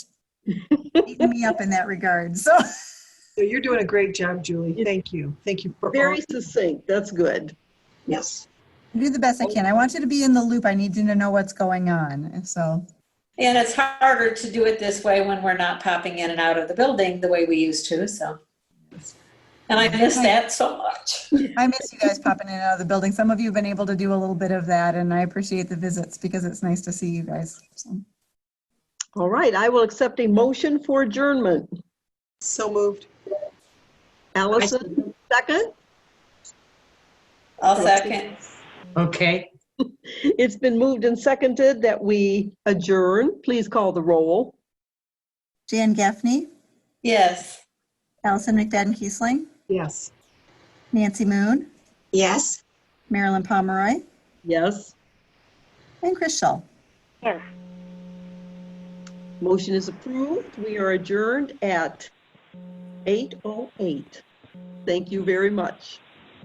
beaten me up in that regard, so. So You're doing a great job, Julie. Thank you. Thank you for all- Very succinct, that's good. Yes. I do the best I can. I want you to be in the loop. I need you to know what's going on, so. And it's harder to do it this way when we're not popping in and out of the building the way we used to, so. And I miss that so much. I miss you guys popping in and out of the building. Some of you have been able to do a little bit of that, and I appreciate the visits because it's nice to see you guys. So, All right, I will accept a motion for adjournment. So moved. Allison, second. I'll second. Okay, It's been moved and seconded that we adjourn. Please call the roll. Jan Gaffney, Yes. Allison McDadden Kiesling, Yes. Nancy Moon, Yes. Marilyn Pomeroy, Yes, and Chris Schull. motion is approved. We are adjourned at 8:08. Thank oh you very much.